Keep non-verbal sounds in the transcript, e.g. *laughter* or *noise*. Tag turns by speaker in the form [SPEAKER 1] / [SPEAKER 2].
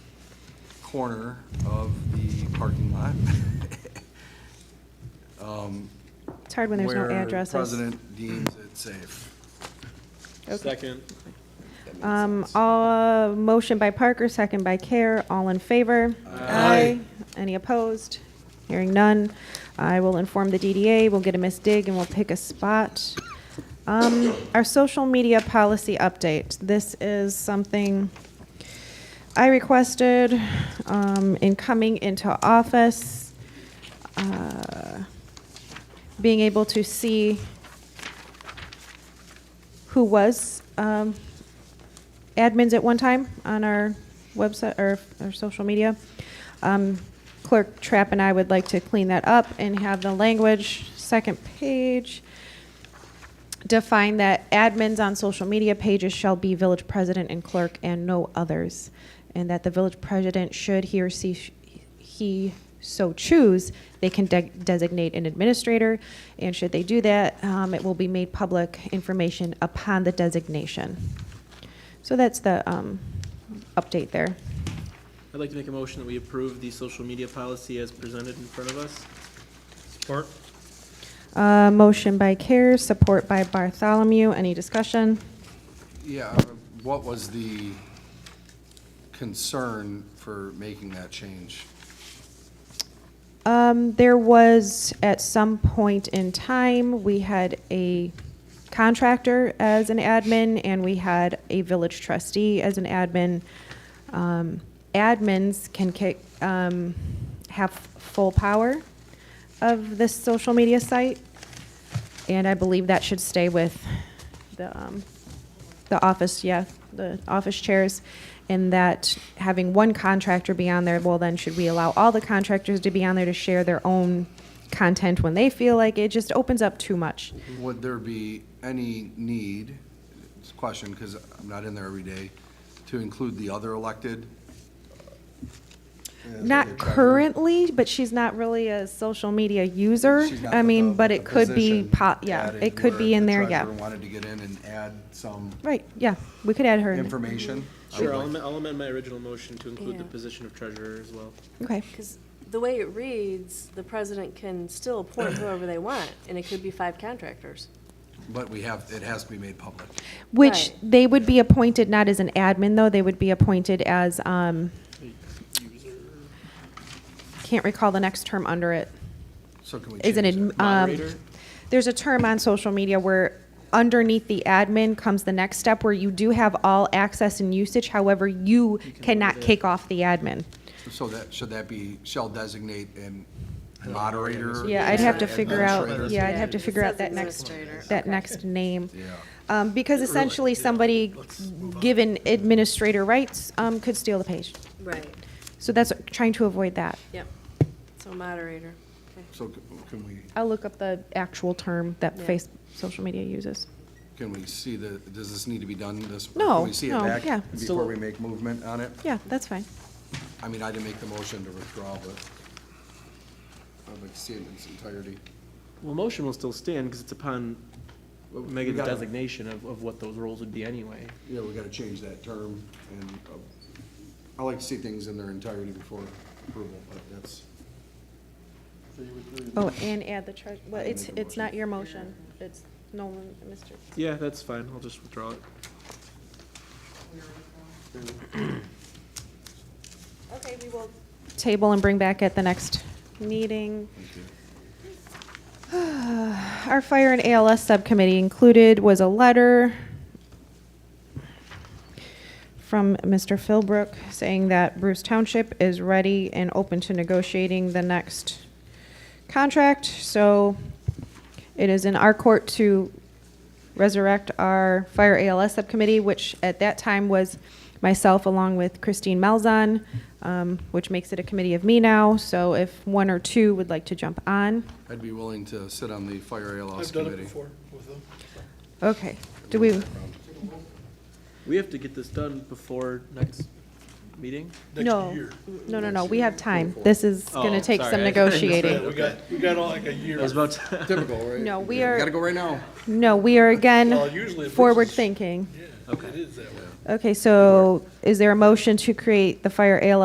[SPEAKER 1] corner of the parking lot. um,
[SPEAKER 2] It's hard *laughs* when there's no addresses.
[SPEAKER 1] Where president deems it safe.
[SPEAKER 2] Okay.
[SPEAKER 3] Second.
[SPEAKER 2] Um, all, motion by Parker, second by Care, all in favor? Aye. Any opposed? Hearing none. I will inform the DDA, we'll get a Miss Dig, and we'll pick a spot. Um, our social media policy update. This is something I requested, um, in coming into office. Uh, Being able to see who was um, admins at one time on our website or our social media. Um, Clerk Trapp and I would like to clean that up and have the language, second page, define that admins on social media pages shall be village president and clerk and no others, and that the village president should he or she he so choose, they can de- designate an administrator, and should they do that, um, it will be made public information upon the designation. So that's the um, update there.
[SPEAKER 3] I'd like to make a motion that we approve the social media policy as presented in front of us. Support.
[SPEAKER 2] Uh, motion by Care, support by Bartholomew. Any discussion?
[SPEAKER 1] Yeah, what was the concern for making that change?
[SPEAKER 2] Um, there was, at some point in time, we had a contractor as an admin, and we had a village trustee as an admin. Um, admins can kick, um, have full power of this social media site, and I believe that should stay with the, um, the office, yeah, the office chairs, and that having one contractor be on there, well, then should we allow all the contractors to be on there to share their own content when they feel like it just opens up too much?
[SPEAKER 1] Would there be any need, it's a question, because I'm not in there every day, to include the other elected? As like a
[SPEAKER 2] Not
[SPEAKER 1] treasurer?
[SPEAKER 2] currently, but she's not really a social media user.
[SPEAKER 1] She's not
[SPEAKER 2] I
[SPEAKER 1] with
[SPEAKER 2] mean,
[SPEAKER 1] the-
[SPEAKER 2] but
[SPEAKER 1] with
[SPEAKER 2] it
[SPEAKER 1] the
[SPEAKER 2] could be,
[SPEAKER 1] position
[SPEAKER 2] po- yeah,
[SPEAKER 1] added
[SPEAKER 2] it could be
[SPEAKER 1] where
[SPEAKER 2] in
[SPEAKER 1] the
[SPEAKER 2] there, yeah.
[SPEAKER 1] treasurer Wanted to get in and add some
[SPEAKER 2] Right, yeah, we could add her in. there.
[SPEAKER 1] information. I would
[SPEAKER 3] Sure, I'll
[SPEAKER 1] like-
[SPEAKER 3] amend, I'll amend my original motion to include the
[SPEAKER 4] Yeah.
[SPEAKER 3] position of treasurer as well.
[SPEAKER 2] Okay,
[SPEAKER 4] Because the way it reads, the president can still appoint whoever they want, and it could be five contractors.
[SPEAKER 1] But we have, it has to be made public.
[SPEAKER 2] which
[SPEAKER 4] Right.
[SPEAKER 2] they would be appointed not as an admin, though, they would be appointed as, um, can't recall the next term under it.
[SPEAKER 1] So can we change
[SPEAKER 2] is an,
[SPEAKER 1] it?
[SPEAKER 2] adm-
[SPEAKER 3] Moderator?
[SPEAKER 2] um, there's a term on social media where underneath the admin comes the next step where you do have all access and usage, however, you cannot kick off the admin.
[SPEAKER 1] So that, should that be, shall designate and moderator?
[SPEAKER 2] Yeah, I'd have to figure out,
[SPEAKER 1] administrator?
[SPEAKER 2] yeah, I'd have to
[SPEAKER 4] It
[SPEAKER 2] figure out
[SPEAKER 4] says
[SPEAKER 2] that next,
[SPEAKER 4] administrator,
[SPEAKER 2] that
[SPEAKER 4] okay.
[SPEAKER 2] next name.
[SPEAKER 1] Yeah.
[SPEAKER 2] Um, because essentially, somebody given administrator rights, um, could steal the page.
[SPEAKER 4] Right,
[SPEAKER 2] So that's trying to avoid that.
[SPEAKER 4] yep. So moderator, okay.
[SPEAKER 1] So c- can we,
[SPEAKER 2] I'll look up the actual term that
[SPEAKER 4] Yeah.
[SPEAKER 2] face, social media uses.
[SPEAKER 1] can we see the, does this need to be done this?
[SPEAKER 2] No,
[SPEAKER 1] Can we see it
[SPEAKER 2] no,
[SPEAKER 1] back
[SPEAKER 2] yeah.
[SPEAKER 1] Before we make movement on it?
[SPEAKER 2] Yeah, that's fine.
[SPEAKER 1] I mean, I didn't make the motion to withdraw, but I'd like to see it in its entirety.
[SPEAKER 3] Well, motion will still stand because it's upon Megan's
[SPEAKER 1] gotta-
[SPEAKER 3] designation of, of what those roles would be anyway.
[SPEAKER 1] Yeah, we gotta change that term, and uh, I like to see things in their entirety before approval, but that's.
[SPEAKER 2] Oh, and add the treasure, well,
[SPEAKER 1] I can
[SPEAKER 2] it's,
[SPEAKER 1] make a
[SPEAKER 2] it's not your motion, it's Nolan, Mr.
[SPEAKER 3] Yeah, that's fine. I'll just withdraw it.
[SPEAKER 2] Okay, we will. Table and bring back at the next meeting. Our fire and ALS subcommittee included was a letter from Mr. Philbrook saying that Bruce Township is ready and open to negotiating the next contract. So it is in our court to resurrect our fire ALS subcommittee, which at that time was myself along with Christine Malzahn, um, which makes it a committee of me now. So if one or two would like to jump on.
[SPEAKER 1] I'd be willing to sit on the fire ALS
[SPEAKER 5] I've done
[SPEAKER 1] committee.
[SPEAKER 5] it before with them.
[SPEAKER 2] Okay, do we,
[SPEAKER 3] We have to get this done before next meeting?
[SPEAKER 5] Next
[SPEAKER 2] no,
[SPEAKER 5] year.
[SPEAKER 2] no, no, no, we have time. This is
[SPEAKER 3] Oh,
[SPEAKER 2] gonna take some
[SPEAKER 3] sorry, I thought you said-
[SPEAKER 5] Yeah,
[SPEAKER 2] negotiating.
[SPEAKER 5] we got, we got all like a year.
[SPEAKER 3] I was about to,
[SPEAKER 1] Typical, right?
[SPEAKER 2] No, we
[SPEAKER 1] You
[SPEAKER 2] are-
[SPEAKER 1] Gotta go right now.
[SPEAKER 2] No, we are
[SPEAKER 5] Well,
[SPEAKER 2] again
[SPEAKER 5] usually. if it's-
[SPEAKER 2] forward thinking.
[SPEAKER 5] Yeah, it is that way.
[SPEAKER 2] Okay, so is there a motion to create the fire ALS